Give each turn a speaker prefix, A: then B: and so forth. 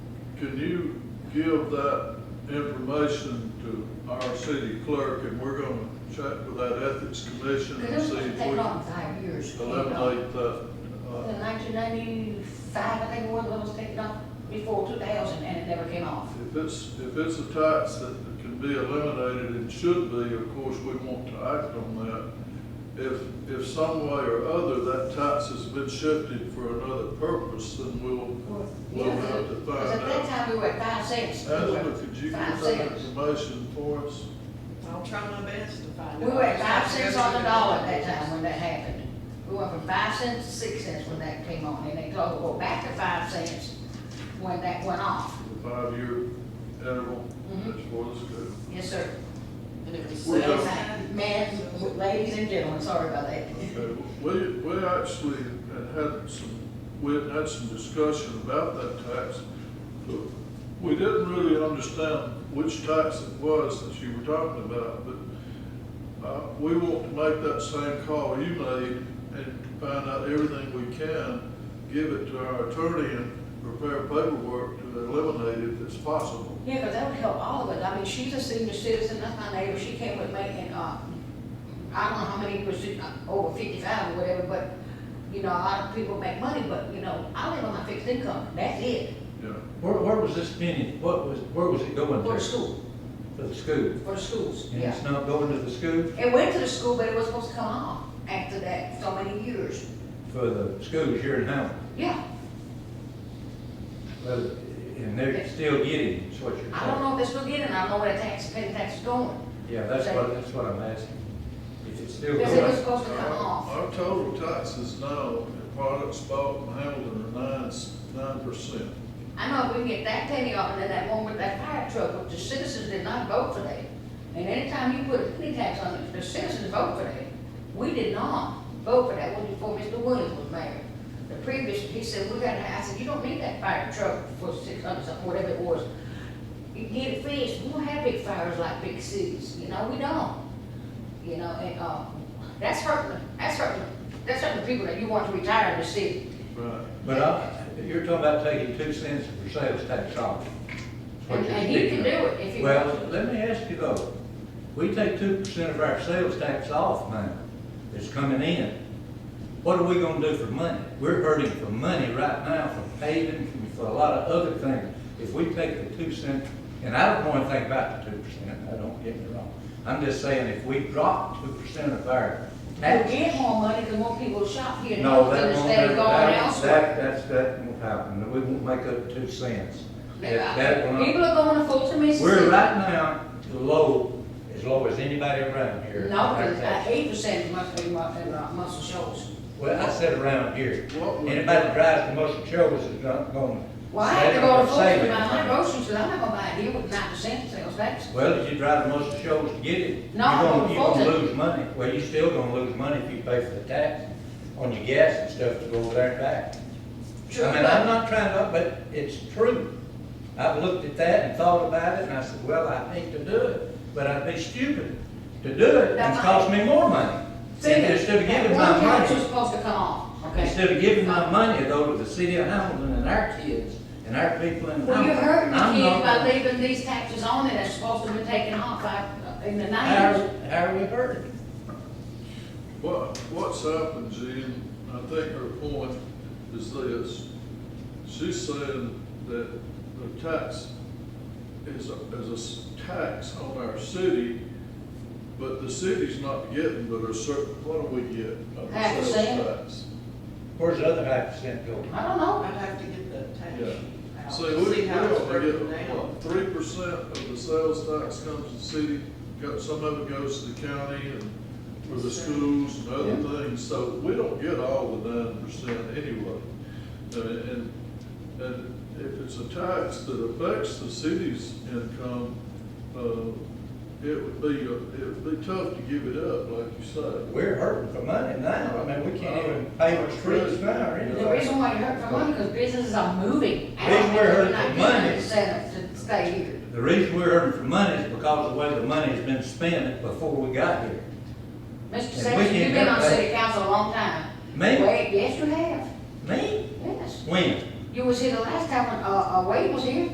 A: can you give that information to our city clerk, and we're gonna check with that ethics commission
B: It
A: and see
B: doesn't
A: if
B: take
A: we
B: long,
A: can
B: five years. to get it off.
A: eliminate that.
B: In
A: Uh,
B: nineteen ninety-five, I think it was, when it was taken off before two thousand, and it never came off.
A: If it's, if it's a tax that can be eliminated and should be, of course, we want to act on that. If, if some way or other that tax has been shifted for another purpose, then we'll, we'll have to find
B: Because at that
A: out.
B: time, we were at five cents. We were
A: Angela, could you give
B: five
A: that
B: cents.
A: information for us?
C: I'll try my best to find
B: We
C: out.
B: were at five cents on the dollar at that time when that happened. We went from five cents to six cents when that came on, and they go, go back to five cents when that went off.
A: The five-year interval,
B: Mhm.
A: that's what it's good.
B: Yes, sir.
C: And it was
A: We're
C: sales
A: done.
C: tax.
B: Men, ladies and gentlemen, sorry about that.
A: Okay, We, we actually had had some, we had had some discussion about that tax. but We didn't really understand which tax it was that you were talking about, but, uh, we want to make that same call you made and find out everything we can, give it to our attorney and prepare paperwork to eliminate it if it's possible.
B: Yeah, because that would help all of us. I mean, she's a senior citizen, that's my neighbor, she came with me and, uh, I don't know how many was, uh, over fifty-five or whatever, but, you know, a lot of people make money, but, you know, I live on my fixed income, that's it,
A: Yeah,
D: Where, where was this penny, what was, where was it going to?
B: for the school,
D: To the school.
B: for the schools,
D: And
B: yeah.
D: it's not going to the school,
B: It went to the school, but it was supposed to come off after that, so many years,
D: for the schools here in Hamilton.
B: yeah.
D: Well, And they're still getting, it, is what you're saying.
B: I don't know if they're still getting, it. I don't know where the tax, penny tax is going,
D: Yeah, that's what, that's what I'm asking. If it's still
B: because it was
D: going,
B: supposed to come off.
A: Our total taxes now, in products bought in Hamilton are nine, nine percent.
B: I know if we can get that penny off, and then that one with that fire truck, which the citizens did not vote for that. And anytime you put a penny tax on it, the citizens vote for that. We did not vote for that one before Mr. Williams was mayor. The previous, he said, we gotta, I said, you don't need that fire truck for six hundred something, whatever it was. You can get it fixed, we don't have big fires like big cities, you know, we don't. You know, and, uh, that's hurting, that's hurting, that's hurting the people that you want to retire in the city.
A: Right.
D: but I, you're talking about taking two cents for sales tax off. That's what
B: And,
D: you're
B: and you can
D: speaking
B: do
D: of.
B: it if you.
D: Well, let me ask you though, we take two percent of our sales tax off now, that's coming in. What are we gonna do for money? We're hurting for money right now, for paving, for a lot of other things. If we take the two cent, and I don't know anything about the two percent, I don't get me wrong. I'm just saying, if we drop two percent of our
B: We'll
D: taxes.
B: get more money because more people shop here in
D: No,
B: Hamilton
D: that won't,
B: instead
D: that,
B: of going elsewhere.
D: that, that's, that won't happen. We won't make up two cents. That- that will not-
B: People are going to Fulton, Mississippi.
D: We're right now low, as low as anybody around here.
B: No, because eight percent must be mu- in uh, Muscle Shoals.
D: Well, I said around here.
A: What would-
D: Anybody that drives to Muscle Shoals is not going.
B: Well, I have to go to Fulton to buy my groceries, because I'm not gonna buy it here with nine percent sales tax.
D: Well, if you drive to Muscle Shoals to get it,
B: No, I'm going to
D: You're gonna, you're
B: Fulton.
D: gonna lose money. Well, you're still gonna lose money if you pay for the tax on your gas and stuff to go over there and back.
B: True,
D: I mean, I'm not trying to, but it's true. I've looked at that and thought about it, and I said, well, I hate to do it, but I'd be stupid to do it, and
B: That's
D: cost me more money.
B: See,
D: Instead of
B: that
D: giving my
B: One tax is
D: money,
B: supposed to come off, okay?
D: instead of giving my money, though, to the city of Hamilton and our kids, and our people in
B: Well, you're
D: Hamilton.
B: hurting the
D: I'm
B: kids
D: not-
B: by leaving these taxes on it that's supposed to be taken off by, in the
D: How,
B: nineties.
D: how are we hurting?
A: What, what's happened, Jean, I think her point is this. She's saying that the tax is, a- is a s- tax on our city, but the city's not getting, but are certain, what do we get? of the
B: Half a
A: sales
B: cent.
A: tax?
D: Where's the other half percent going?
B: I don't know.
C: I'd have to get the tax
A: Yeah.
C: sheet out,
A: So we,
C: see
A: we
C: how it's
A: only
C: broken
A: get,
C: down.
A: what, three percent of the sales tax comes to the city, got, some of it goes to the county and for the schools and other things, so we don't get all the nine percent anyway. And, and, and if it's a tax that affects the city's income, uh, it would be, a- it would be tough to give it up, like you say.
D: We're hurting for money now, I mean, we can't even pay for streets now or anything.
B: The reason why you're hurting for money, because businesses are moving. out.
D: Reason we're hurting
B: They're not
D: for money.
B: getting incentives to stay here.
D: The reason we're hurting for money is because of the way the money has been spent before we got here.
B: Mr.
D: we
B: Sexton,
D: can't
B: you've been on
D: do that-
B: city council a long time.
D: Me?
B: Wait, yes, you have,
D: Me?
B: yes.
D: When?
B: You was here the last time when, uh, uh, Wade was here.